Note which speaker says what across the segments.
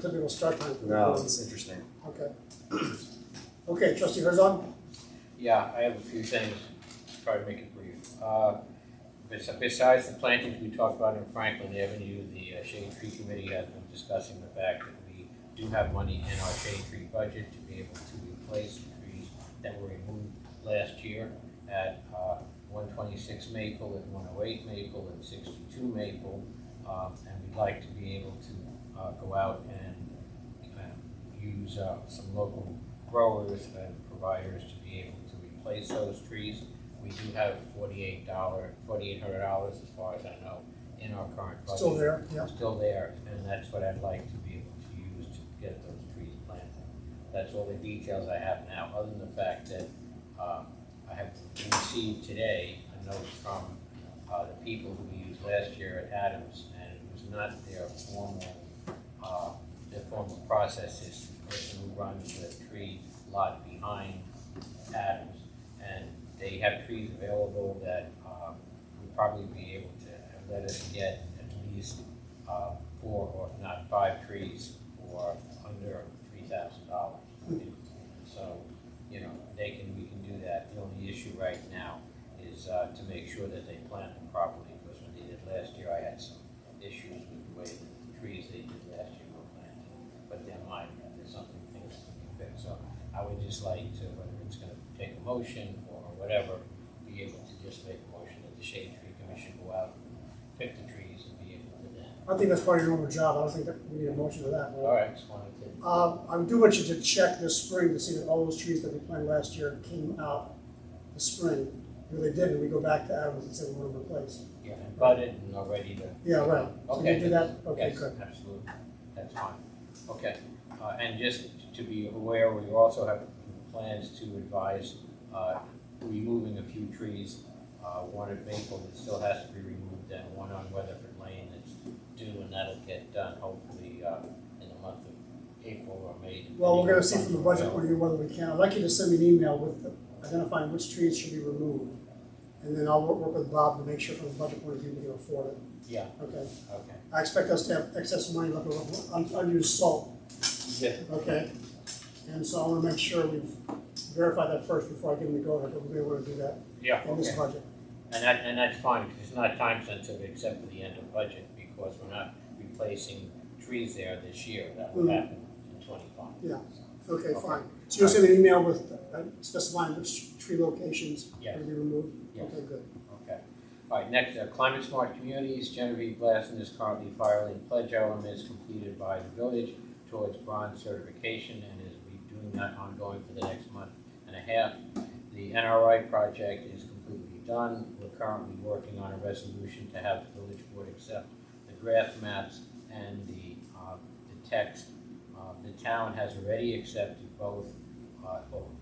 Speaker 1: typical start time. for
Speaker 2: No,
Speaker 1: everyone.
Speaker 2: it's interesting.
Speaker 1: Okay. Okay, trustee Herzog?
Speaker 3: Yeah, I have a few things, try to make it brief. Uh, bes- Besides the plantings we talked about in Franklin Avenue, the uh, shade tree committee has been discussing the fact that we do have money in our shade tree budget to be able to replace the trees that were removed last year at uh, 126 Maple and 108 Maple and 62 Maple. Um, And we'd like to be able to uh, go out and uh, use uh, some local growers and providers to be able to replace those trees. We do have forty-eight dollar, forty-eight hundred dollars as far as I know in our current budget.
Speaker 1: Still there, yeah.
Speaker 3: Still there, and that's what I'd like to be able to use to get those trees planted. That's all the details I have now, other than the fact that, um, I have received today a note from, uh, the people who we used last year at Adams, and it was not their formal, uh, the formal process is the person who runs the tree lot behind Adams. And they have trees available that um, would probably be able to let us get at least uh, four or if not five trees for under three thousand dollars. So, you know, they can, we can do that. The only issue right now is uh, to make sure that they plant them properly, because when they did last year, I had some issues with the way that the trees they did last year were planted. But they're minor, there's something things that we can fix. So I would just like to, whether it's gonna take a motion or whatever, be able to just make a motion that the shade tree commission go out, and pick the trees and be able to do that.
Speaker 1: I think that's part of your normal job. I don't think that we need a motion for that.
Speaker 3: All right, just wanted to.
Speaker 1: Um, I do want you to check this spring to see that all those trees that we planted last year came out this spring. If they didn't, we go back to Adams and say we want to replace.
Speaker 3: Yeah, and budded and are ready to.
Speaker 1: Yeah, right. So you
Speaker 3: Okay.
Speaker 1: do that? Okay,
Speaker 3: Yes,
Speaker 1: good.
Speaker 3: absolutely, that's fine. Okay, uh, and just to be aware, we also have plans to advise, uh, removing a few trees. Uh, one at Maple that still has to be removed, and one on Weatherford Lane that's due, and that'll get done hopefully, uh, in the month of April or May.
Speaker 1: Well, we're gonna see from the budget point of view whether we can. I'd like you to send me an email with the- identifying which trees should be removed. And then I'll work, work with Bob to make sure from the budget point of view we can afford it.
Speaker 3: Yeah,
Speaker 1: Okay.
Speaker 3: okay.
Speaker 1: I expect us to have excess money left over, un- unused salt.
Speaker 3: Yeah.
Speaker 1: Okay. And so I wanna make sure we verify that first before I give them the go ahead, but we wanna do that
Speaker 3: Yeah,
Speaker 1: on this
Speaker 3: okay.
Speaker 1: budget.
Speaker 3: And that, and that's fine, because it's not time sensitive except for the end of budget, because we're not replacing trees there this year, that will
Speaker 1: Mhm.
Speaker 3: happen in twenty-five.
Speaker 1: Yeah. Okay,
Speaker 3: Okay.
Speaker 1: fine. So you'll send an email with uh, specifying which tree locations
Speaker 3: Yeah.
Speaker 1: are to be removed?
Speaker 3: Yes.
Speaker 1: Okay, good.
Speaker 3: Okay. All right, next, uh, climate smart communities, Genevieve Blassen is currently filing pledge elements completed by the village towards bronze certification and is be doing that ongoing for the next month and a half. The NRI project is completely done. We're currently working on a resolution to have the village board accept the draft maps and the, uh, the text. Uh, the town has already accepted both, uh,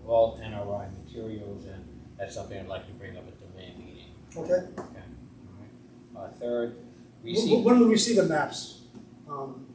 Speaker 3: all NRI materials and that's something I'd like to bring up at the May meeting.
Speaker 1: Okay.
Speaker 3: Uh,
Speaker 1: Wh-
Speaker 3: third,
Speaker 1: wh-
Speaker 3: receive,
Speaker 1: When will we see the maps? Um,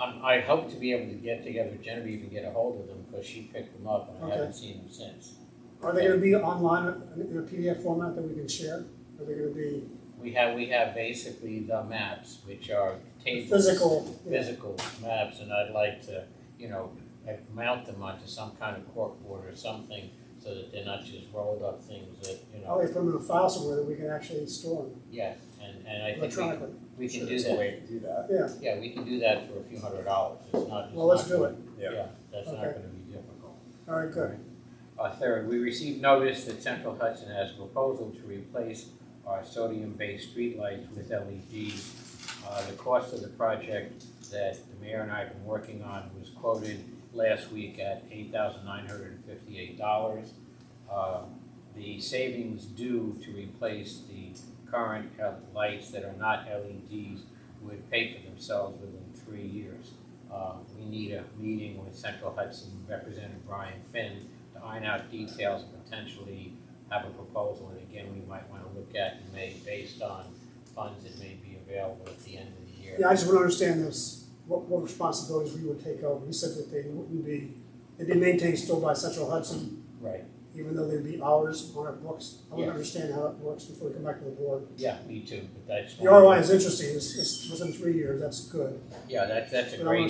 Speaker 3: um, I hope to be able to get together with Genevieve and get a hold of them, because she picked them up and I
Speaker 1: Okay.
Speaker 3: haven't seen them since.
Speaker 1: Are they gonna be online in in a PDF format that we can share? Are they gonna be
Speaker 3: We have, we have basically the maps, which are tables.
Speaker 1: physical? Yeah.
Speaker 3: Physical maps, and I'd like to, you know, like, mount them onto some kind of corkboard or something, so that they're not just rolled up things that, you
Speaker 1: I'll
Speaker 3: know,
Speaker 1: put them in a file somewhere that we can actually store them
Speaker 3: yes, and, and I think we-
Speaker 1: electronically.
Speaker 3: we, can
Speaker 1: Sure.
Speaker 3: do
Speaker 2: There's a
Speaker 3: that.
Speaker 2: way to do that.
Speaker 1: Yeah,
Speaker 3: Yeah, we can do that for a few hundred dollars, it's not, it's
Speaker 1: well, let's
Speaker 3: not
Speaker 1: do
Speaker 3: gonna-
Speaker 1: it.
Speaker 2: Yeah.
Speaker 3: Yeah, that's not
Speaker 1: Okay.
Speaker 3: gonna be difficult.
Speaker 1: All right, good.
Speaker 3: Uh, third, we received notice that Central Hudson has a proposal to replace our sodium-based streetlights with LEDs. Uh, the cost of the project that the mayor and I have been working on was quoted last week at eight thousand nine hundred and fifty-eight dollars. Um, The savings due to replace the current uh, lights that are not LEDs would pay for themselves within three years. Uh, We need a meeting with Central Hudson Representative Brian Finn to iron out details and potentially have a proposal that again, we might wanna look at and make based on funds that may be available at the end of the year.
Speaker 1: Yeah, I just want to understand this, what, what responsibilities we would take over. You said that they wouldn't be, they'd be maintained still by Central Hudson,
Speaker 3: Right,
Speaker 1: even though they'd be ours on our books. I want
Speaker 3: Yeah.
Speaker 1: to understand how that works before we come back to the board.
Speaker 3: yeah, me too, but that's.
Speaker 1: The ROI is interesting, it's, it's within three years, that's good.
Speaker 3: Yeah, that's, that's a
Speaker 1: But I wanna
Speaker 3: great